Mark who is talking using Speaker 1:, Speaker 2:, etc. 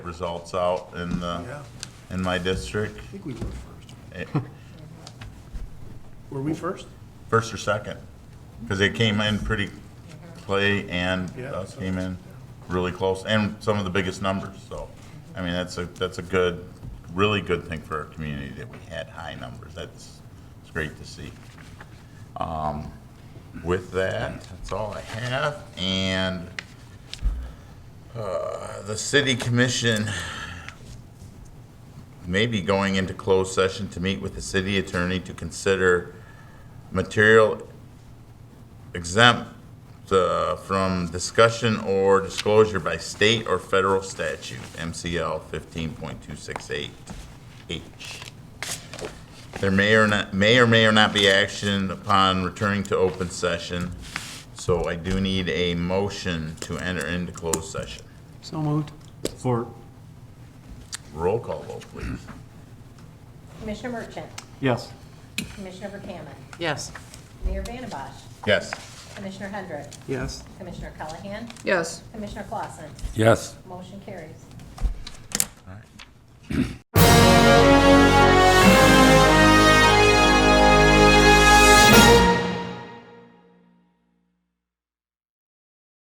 Speaker 1: results out in the, in my district.
Speaker 2: I think we were first.
Speaker 1: Eh,
Speaker 2: Were we first?
Speaker 1: First or second, because they came in pretty, Clay and
Speaker 2: Yeah.
Speaker 1: us came in really close, and some of the biggest numbers, so. I mean, that's a, that's a good, really good thing for our community that we had high numbers. That's, it's great to see. Um, With that, that's all I have, and uh, the city commission may be going into closed session to meet with the city attorney to consider material exempt uh, from discussion or disclosure by state or federal statute, MCL 15.268H. There may or not, may or may or not be action upon returning to open session, so I do need a motion to enter into closed session.
Speaker 2: So moved. For.
Speaker 1: Roll call vote, please.
Speaker 3: Commissioner Merchant,
Speaker 2: Yes.
Speaker 3: Commissioner Verkaman,
Speaker 4: Yes.
Speaker 3: Mayor Vandembosh,
Speaker 1: Yes.
Speaker 3: Commissioner Hendrick,
Speaker 2: Yes.
Speaker 3: Commissioner Callahan,
Speaker 4: Yes.
Speaker 3: Commissioner Clausen.
Speaker 5: Yes.
Speaker 3: Motion carries.